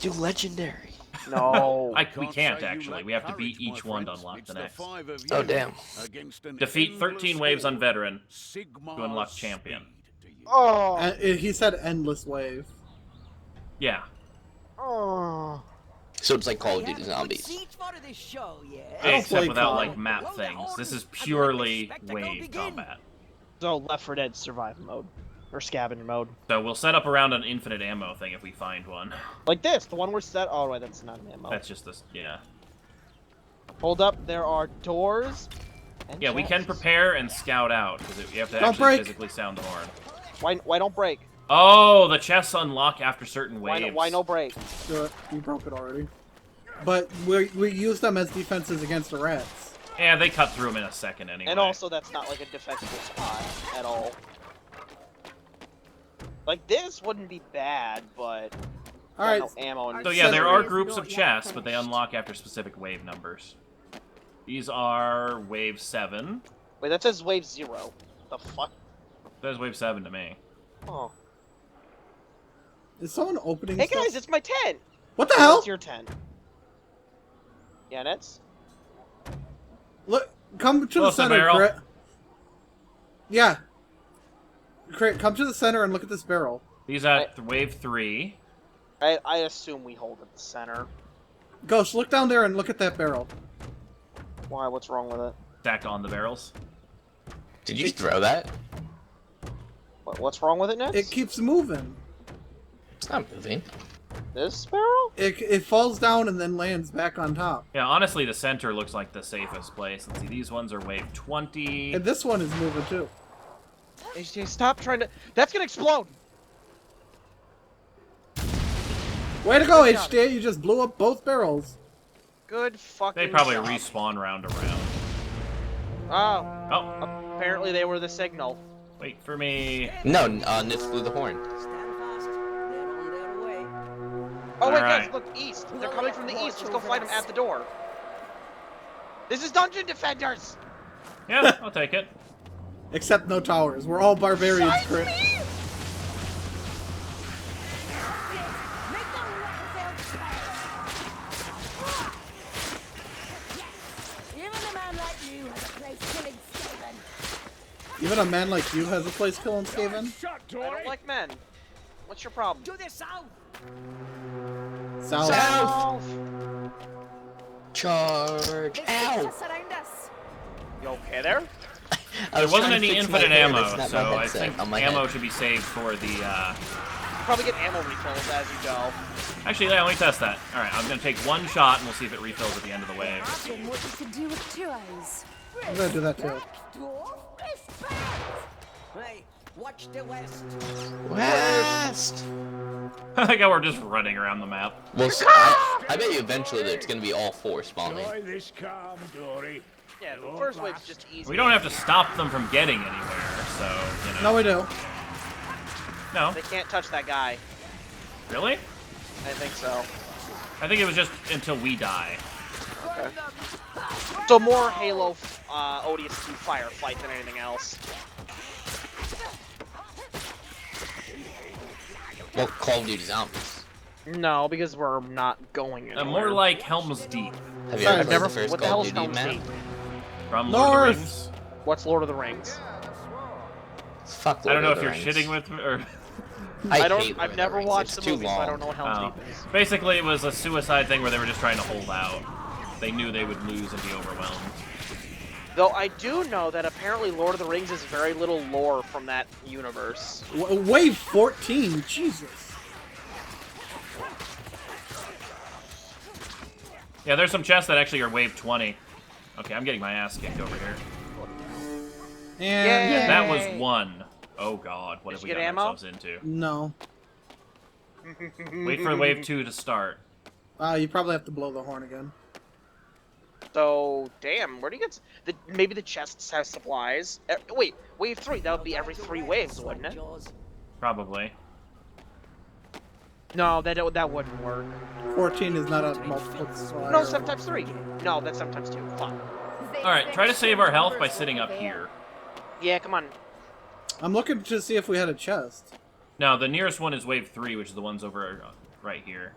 do legendary. No. I, we can't actually. We have to beat each one to unlock the next. Oh, damn. Defeat 13 waves on veteran. to unlock champion. Oh, Uh, he said endless wave. Yeah. oh. So it's like Call of They Duty haven't put Zombies. seats for this show yet. I don't Except play without COD. like Well, map the things. This is orders and let the purely spectacle wave begin. combat. So Left 4 Dead survive mode or scavenger mode, So we'll set up around an infinite ammo thing if we find one. like this. The one we're set. Oh wait, that's not an ammo. That's just this. Yeah. Hold up. There are doors. And Yeah, we can chests. prepare and scout out because you have to Don't actually break. physically sound the horn. Why? Why don't break? Oh, the chests unlock after certain Why, no- waves. why no break? Do it. You broke it already. But we we use them as defenses against the rats. Yeah, they cut through them in a second anyway. And also, that's not like a defensible spot at all. Like this wouldn't be bad, but All right. no ammo. And So yeah, there are groups of chests, but they unlock after specific wave numbers. These are wave seven. Wait, that says wave zero. The fuck? That's wave seven to me. Oh. Is someone opening? Hey stuff? guys, it's my tent. what the Oh, hell? It's your tent. Yeah, and it's Look, come to the Close the center, barrel. Crit. Yeah. Crit, come to the center and look at this barrel. These are th- wave three. I, I assume we hold at the center. Ghost, look down there and look at that barrel. Why? What's wrong with it? Stack on the barrels. Did you throw that? What, what's wrong with it, Nets? It keeps moving. It's not moving. This barrel? It, it falls down and then lands back on top. Yeah, honestly, the center looks like the safest place. Let's see, these ones are wave twenty. And this one is moving too. AJ, stop trying to. That's gonna explode. Way to go, Good job. HD! You just blew up both barrels. Good fucking. They probably job. respawn round around. Oh, Oh, apparently they were the signal. wait for me. No, uh, Nitz blew the horn. Stand fast. They're on their way. Oh wait, Alright. guys, look east. They're coming from the east. Let's go fight them at the door. This is Dungeon Defenders. Yeah, I'll take it. Except no towers. We're all barbarians, Crit. Make them Even a man like you has a place killing Skaven. Even a man like you has a place killing Skaven. I don't like men. What's your problem? To the south. South. South. Charge! They seek Ow! to surround us. You okay there? I There was wasn't trying to any fix my infinite hair, ammo, it's not so my I headset think on my ammo head. should be saved for the. uh... Probably get ammo refills as you go. Actually, yeah, let me test that. All right, I'm gonna take one shot and we'll see if it refills at the end of the wave. Imagine what you can do with two eyes. I'm gonna do that too. Dwarf, respect. Hey, watch the west. West! I think we're just running around the map. Well, s I I I bet you eventually that it's gonna be all four spawning. Enjoy this calm, Dory. Yeah, Your the first wave's last just easy. We don't have to stop them from getting anywhere, so you No, know. we do. No, They can't touch that guy. really? I think so. I think it was just until we die. So more Halo uh, ODS2 firefight than anything else. Well, Call of Duty Zombies. No, because we're not going Uh, more like Helm's Deep Have you ever Sorry, I've played never- the first what the Call hell's of Duty Helm's map? Deep? from Lord of North! the Rings. What's Lord of the Rings? Fuck. I don't Lord of know if the you're Rings. shitting with me or. I, I hate don't. Lord of I've never Rings. watched the it's movie, too so long. I don't know what Helm's Oh. Deep is. Basically, it was a suicide thing where they were just trying to hold out. They knew they would lose and be overwhelmed. Though I do know that apparently Lord of the Rings is very little lore from that universe. W- wave 14. Jesus. Yeah, there's some chests that actually are wave 20. Okay, I'm getting my ass kicked over here. And Yay. That was one. Oh god, what Did have you we get got ammo? ourselves into? no. Wait for wave two to start. Uh, you probably have to blow the horn again. So damn, where do you get s- the maybe the chests have supplies? Uh, wait, wave three. That would be every three waves, wouldn't it? Jaws. Probably. No, that don't- that wouldn't work. 14 is not a multiple supplier. No, sometimes three. No, that's sometimes two. Fuck. Alright, try to save our health by sitting up here. Yeah, come on. I'm looking to see if we had a chest. No, the nearest one is wave three, which is the ones over uh, right here.